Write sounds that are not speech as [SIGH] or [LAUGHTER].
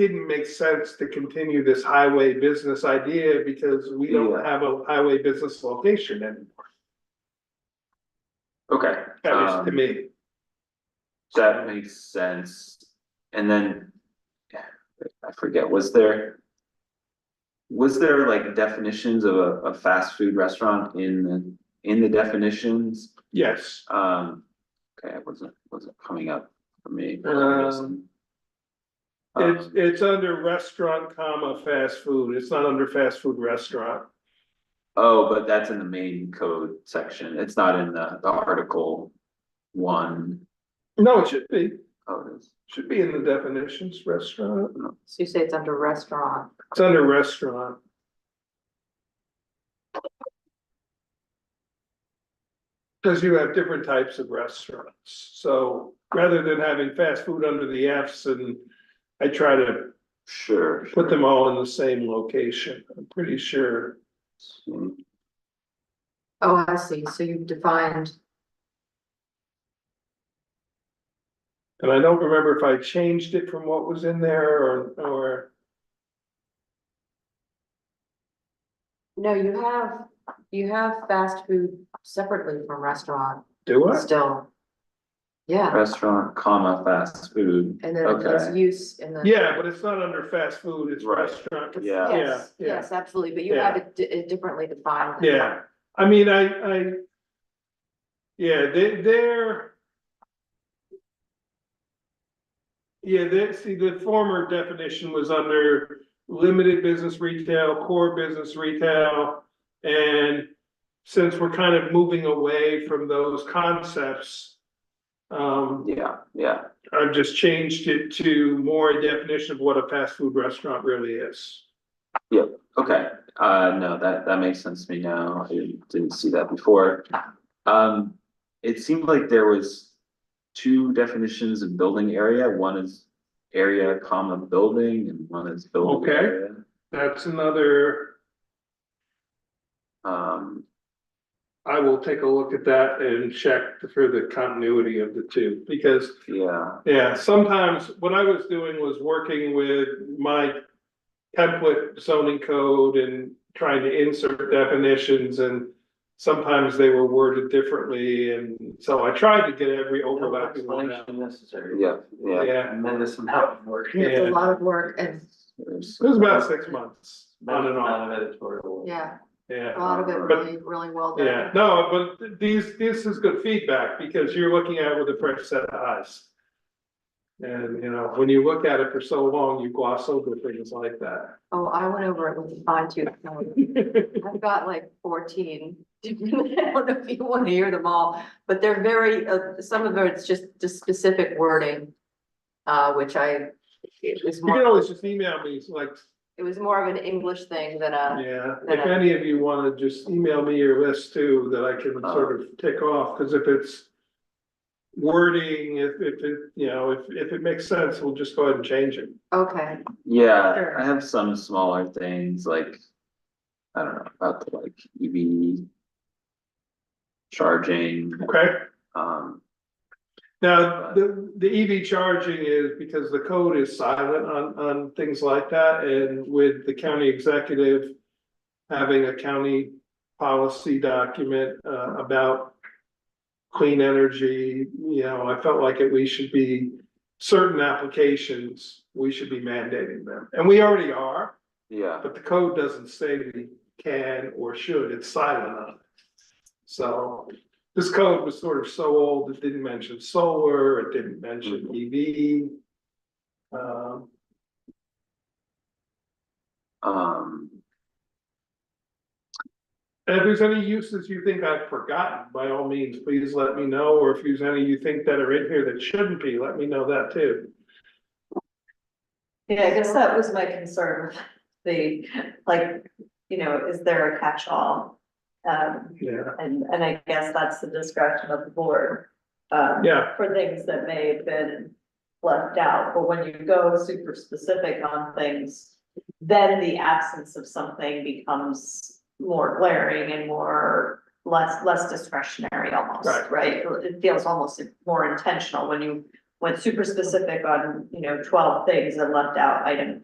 didn't make sense to continue this highway business idea because we don't have a highway business location anymore. Okay, That was to Um, me, so that makes sense. And then. I forget, was there? Was there like definitions of a, a fast food restaurant in the, in the definitions? yes. Um, okay, it wasn't, wasn't coming up for me. for some reason. It's, Um, it's under restaurant comma fast food. It's not under fast food restaurant. Oh, but that's in the main code section. It's not in the, the article one. No, it should be, Oh, it is. should be in the definitions, restaurant. So you say it's under restaurant, It's under restaurant. Cause you have different types of restaurants. So rather than having fast food under the Fs and I try to Sure. put sure. them all in the same location, I'm pretty sure. oh, I see, so you've defined, And I don't remember if I changed it from what was in there or, or, no, you have, you have fast food separately from restaurant do I? still. Yeah, Restaurant, comma, fast food. and then there's Okay. use and then. Yeah, but it's not under fast food, it's Right. restaurant. Yeah. Yes, Yeah, yeah. yes, absolutely, but you have it di- it differently defined. than- Yeah, I mean, I, I. Yeah, they, they're. Yeah, they, see, the former definition was under limited business retail, core business retail. And since we're kind of moving away from those concepts. Um, Yeah, yeah, I've just changed it to more a definition of what a fast food restaurant really is. okay, uh, no, that, that makes sense to me now, I didn't see that before. Um, it seemed like there was two definitions of building area, one is area, comma, building, and one is building Okay. area. That's another, Um, I will take a look at that and check for the continuity of the two, because, yeah, yeah, sometimes what I was doing was working with my template zoning code and trying to insert definitions and sometimes they were worded differently, and so I tried to get every No overlapping one out. explanation necessary. yeah, yeah. Yeah, And then this amount of work. Yeah. It's a lot of work and, There's- it was about six months, on and off, Amount of editorial. yeah, yeah. a lot of it really, really well done. Yeah, no, but these, this is good feedback because you're looking at it with a fresh set of eyes. And, you know, when you look at it for so long, you gloss over things like that. [LAUGHS] Oh, I went over it with a fine tooth comb. I've got like fourteen. [LAUGHS] I don't know if you want to hear them all, but they're very, uh, some of it's just the specific wording. Uh, which I, it was You can more, always just email me, it's like, it was more of an English thing than a, yeah, if any of you wanna just email me your list too, that I can sort of tick off, cause if it's. Wording, if, if, it you know, if, if it makes sense, we'll just go ahead and change it. okay, Yeah, Sure. I have some smaller things like, I don't know, about the like E EV. Charging, Okay? um, Now, the, the EV charging is because the code is silent on, on things like that, and with the county executive. Having a county policy document, uh, about. Clean energy, you know, I felt like it, we should be, certain applications, we should be mandating them, and we already are. yeah, But the code doesn't say we can or should, it's silent on it. So this code was sort of so old, it didn't mention solar, it didn't mention EV. Um, um, and if there's any uses you think I've forgotten, by all means, please let me know, or if there's any you think that are in here that shouldn't be, let me know that too. Yeah, I guess that was my concern, the, like, you know, is there a catch-all? Um, Yeah, and, and I guess that's the discretion of the board. um, yeah, For things that may have been left out, but when you go super specific on things, then the absence of something becomes more glaring and more, less, less discretionary almost, Right. right? It feels almost more intentional when you went super specific on, you know, twelve things and left out item